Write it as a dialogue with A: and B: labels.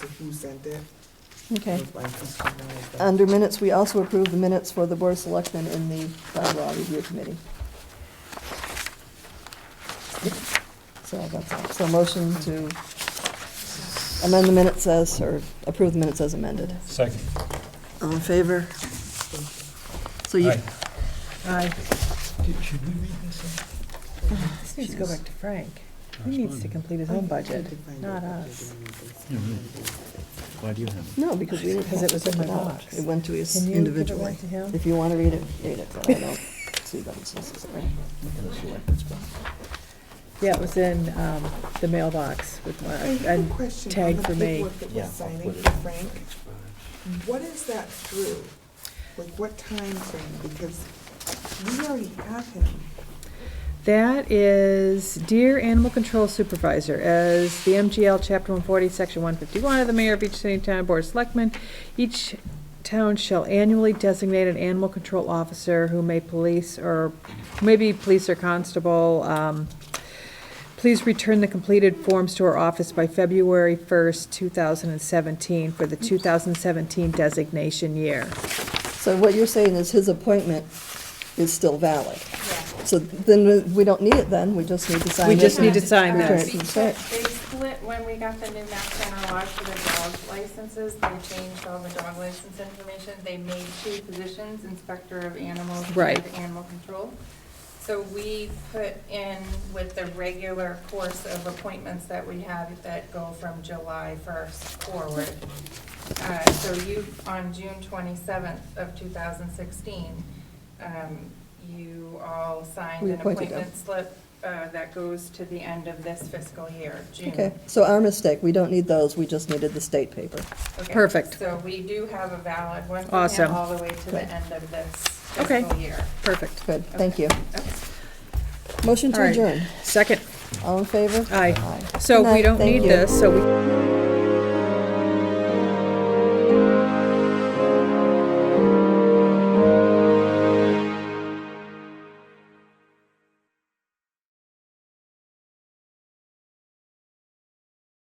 A: who sent it. It
B: Okay.
A: was like this one, like that.
B: Under minutes, we also approve the minutes for the Board of Selectmen in the bylaw review committee. So that's all. So motion to amend the minutes as, or approve the minutes as amended.
C: Second.
B: All in favor? So you,
C: Aye.
B: aye.
C: Should we read this?
D: This needs to go back to Frank. He needs to complete
B: Oh,
D: his
A: I
D: own
A: tried
D: budget,
A: to find
D: not
A: it, but
D: us.
A: they didn't
C: Why do you have?
B: No, because we didn't
D: Because
B: have
D: it
B: to
D: was in
B: print
D: my
B: it out.
D: box.
B: It went to us
D: Can you give it
B: individually.
D: back to him?
B: If you want to read it, read it, but I don't see that it's necessary.
D: Yeah, it was in um, the mailbox with my,
A: I have a
D: and
A: question on
D: tag
A: the
D: for me.
A: paperwork that was signing for Frank. What is that through? Like, what time frame? Because we already have him.
D: that is Dear Animal Control Supervisor, as the MGL Chapter 140, Section 151 of the Mayor of each city and town board of selectmen, each town shall annually designate an animal control officer who may police or, maybe police or constable, um, Please return the completed forms to our office by February 1st, 2017, for the 2017 designation year.
B: So what you're saying is his appointment is still valid. So then we- we don't need it then, we just need to sign it.
D: We just need to sign
B: Return it
D: this.
B: to the clerk.
E: They split, when we got the new mass general laws for the dog licenses, they changed all the dog license information. They made two positions, inspector of animals
D: Right.
E: and animal control. So we put in with the regular course of appointments that we have that go from July first forward. Uh, So you, on June 27th of 2016, um, you all signed
B: We
E: an
B: appointed them.
E: appointment slip uh, that goes to the end of this fiscal year, June.
B: Okay, so our mistake, we don't need those, we just needed the state paper.
E: Okay,
D: Perfect.
E: So we do have a valid one for
D: Awesome.
E: him all the way to
B: Good.
E: the end of this
D: Okay.
E: fiscal year.
D: Perfect.
B: Good, thank you.
E: Okay.
B: Motion
D: All
B: to
D: right.
B: adjourn.
D: Second.
B: All in favor?
D: Aye.
B: Aye.
D: So
B: Good
D: we
B: night,
D: don't
B: thank
D: need
B: you.
D: this, so we